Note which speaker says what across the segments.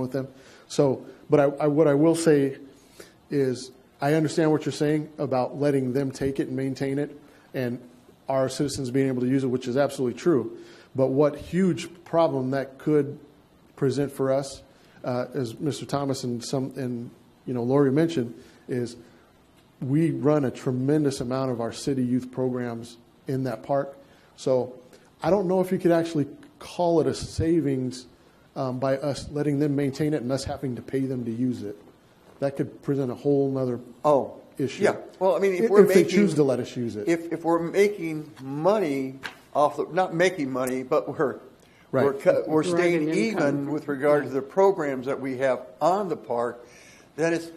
Speaker 1: with them. So, but I, I, what I will say is, I understand what you're saying about letting them take it and maintain it, and our citizens being able to use it, which is absolutely true. But what huge problem that could present for us, uh, as Mr. Thomas and some, and, you know, Lori mentioned, is we run a tremendous amount of our city youth programs in that park. So I don't know if you could actually call it a savings um, by us letting them maintain it and us having to pay them to use it. That could present a whole nother
Speaker 2: Oh,
Speaker 1: issue.
Speaker 2: Yeah, well, I mean, if
Speaker 1: If
Speaker 2: we're
Speaker 1: if they
Speaker 2: making.
Speaker 1: choose to let us use it.
Speaker 2: If, if we're making money off, the not making money, but we're,
Speaker 1: Right.
Speaker 2: we're, cut- we're staying
Speaker 3: Driving income.
Speaker 2: even with regard to the programs that we have on the park, then it's,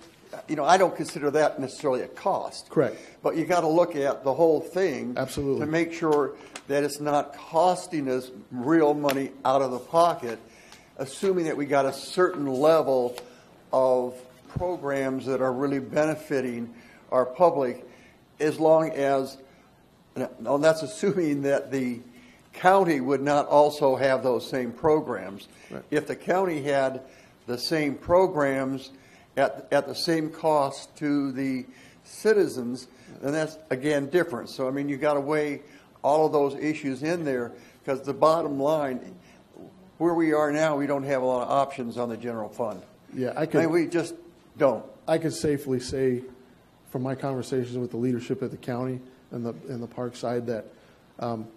Speaker 2: you know, I don't consider that necessarily a cost.
Speaker 1: Correct.
Speaker 2: But you gotta look at the whole thing.
Speaker 1: Absolutely.
Speaker 2: To make sure that it's not costing us real money out of the pocket, assuming that we got a certain level of programs that are really benefiting our public, as long as, no, that's assuming that the county would not also have those same programs. If the county had the same programs at, at the same cost to the citizens, then that's, again, different. So, I mean, you got to weigh all of those issues in there, because the bottom line, where we are now, we don't have a lot of options on the general fund.
Speaker 1: Yeah, I
Speaker 2: I mean,
Speaker 1: could,
Speaker 2: we just don't.
Speaker 1: I could safely say, from my conversations with the leadership at the county and the, and the park side, that um,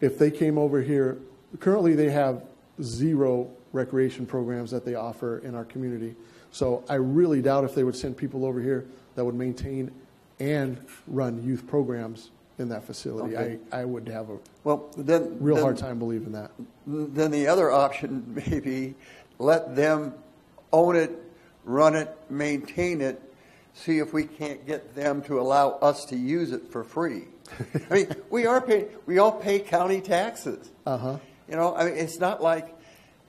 Speaker 1: if they came over here, currently they have zero recreation programs that they offer in our community. So I really doubt if they would send people over here that would maintain and run youth programs in that facility. I,
Speaker 2: Okay.
Speaker 1: I would have a
Speaker 2: Well, then.
Speaker 1: real
Speaker 2: then-
Speaker 1: hard time believing that.
Speaker 2: Then the other option may be let them own it, run it, maintain it, see if we can't get them to allow us to use it for free. I mean, we are paying, we all pay county taxes.
Speaker 1: Uh-huh.
Speaker 2: You know, I mean, it's not like,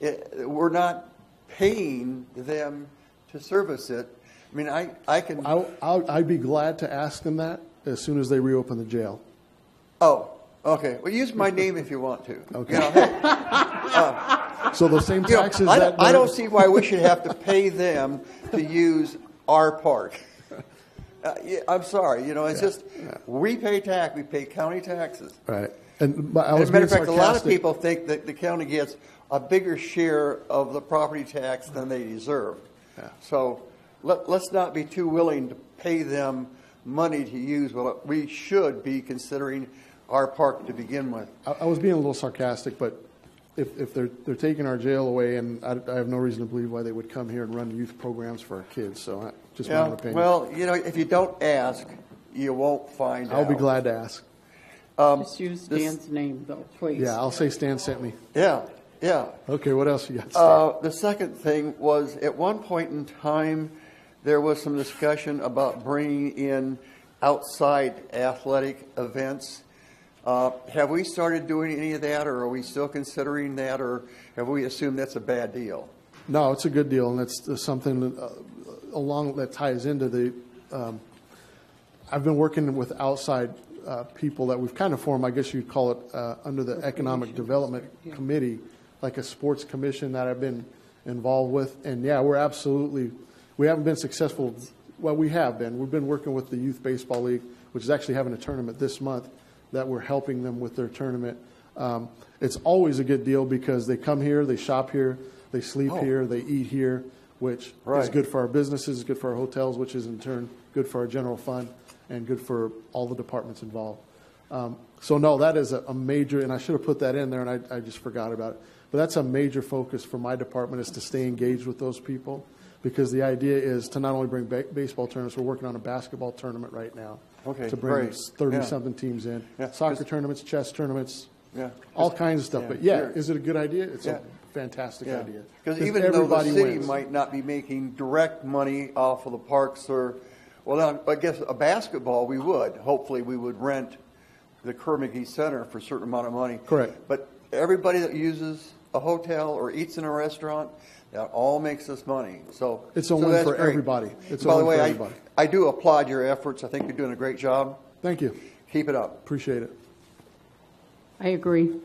Speaker 2: it, we're not paying them to service it. I mean, I, I can,
Speaker 1: I, I'll- I'd be glad to ask them that as soon as they reopen the jail.
Speaker 2: oh, okay, well, use my name if you want to.
Speaker 1: Okay.
Speaker 2: You know, hey,
Speaker 1: So those same
Speaker 2: You know,
Speaker 1: taxes
Speaker 2: I,
Speaker 1: that.
Speaker 2: don't, I don't see why we should have to pay them to use our park. Uh, yeah, I'm sorry, you know, it's just we pay tax, we pay county taxes.
Speaker 1: Right. And but I
Speaker 2: As
Speaker 1: was
Speaker 2: a matter
Speaker 1: being
Speaker 2: of fact, a lot of
Speaker 1: sarcastic.
Speaker 2: people think that the county gets a bigger share of the property tax than they deserve. So let, let's not be too willing to pay them money to use what we should be considering our park to begin with.
Speaker 1: I, I was being a little sarcastic, but if, if they're, they're taking our jail away, and I, I have no reason to believe why they would come here and run youth programs for our kids, so I, just my
Speaker 2: Yeah,
Speaker 1: own opinion.
Speaker 2: well, you know, if you don't ask, you won't find out.
Speaker 1: I'll be glad to ask.
Speaker 3: Just use
Speaker 2: this-
Speaker 3: Dan's name though, please.
Speaker 1: Yeah, I'll say Stan sent me.
Speaker 2: Yeah, yeah.
Speaker 1: Okay, what else you got? Stan?
Speaker 2: Uh, the second thing was, at one point in time, there was some discussion about bringing in outside athletic events. Uh, have we started doing any of that, or are we still considering that, or have we assumed that's a bad deal?
Speaker 1: No, it's a good deal, and that's that's something that, uh, along that ties into the. Um, I've been working with outside uh, people that we've kind of formed. I guess you'd call it uh, under the Economic Development Committee, like a sports commission that I've been involved with. And yeah, we're absolutely. We haven't been successful. Well, we have been. We've been working with the Youth Baseball League, which is actually having a tournament this month that we're helping them with their tournament. Um, it's always a good deal because they come here, they shop here, they sleep here, they eat here, which is
Speaker 2: Right.
Speaker 1: good for our businesses, good for our hotels, which is in turn good for our general fund and good for all the departments involved. Um, so no, that is a, a major, and I should have put that in there, and I, I just forgot about it. But that's a major focus for my department is to stay engaged with those people because the idea is to not only bring ba- baseball tournaments, we're working on a basketball tournament right now.
Speaker 2: Okay,
Speaker 1: To bring
Speaker 2: great. Yeah.
Speaker 1: thirty-something teams in,
Speaker 2: Yeah,
Speaker 1: soccer
Speaker 2: 'cause-
Speaker 1: tournaments, chess tournaments,
Speaker 2: Yeah.
Speaker 1: all kinds of stuff. But
Speaker 2: Yeah.
Speaker 1: yeah, is it a good idea? It's
Speaker 2: Yeah.
Speaker 1: a fantastic idea.
Speaker 2: Because even though the
Speaker 1: everybody
Speaker 2: city
Speaker 1: wins.
Speaker 2: might not be making direct money off of the parks or, well, now, I guess a basketball we would. Hopefully, we would rent the Kermagee Center for a certain amount of money.
Speaker 1: Correct.
Speaker 2: But everybody that uses a hotel or eats in a restaurant, that all makes us money. So
Speaker 1: It's a
Speaker 2: so
Speaker 1: win
Speaker 2: that's
Speaker 1: for
Speaker 2: great.
Speaker 1: everybody. It's a
Speaker 2: By
Speaker 1: win
Speaker 2: the
Speaker 1: for
Speaker 2: way, I-
Speaker 1: everybody.
Speaker 2: I do applaud your efforts. I think you're doing a great job.
Speaker 1: Thank you.
Speaker 2: Keep it up.
Speaker 1: Appreciate it.
Speaker 3: I agree.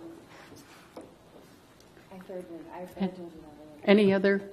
Speaker 4: I third one, I third one.
Speaker 3: Any other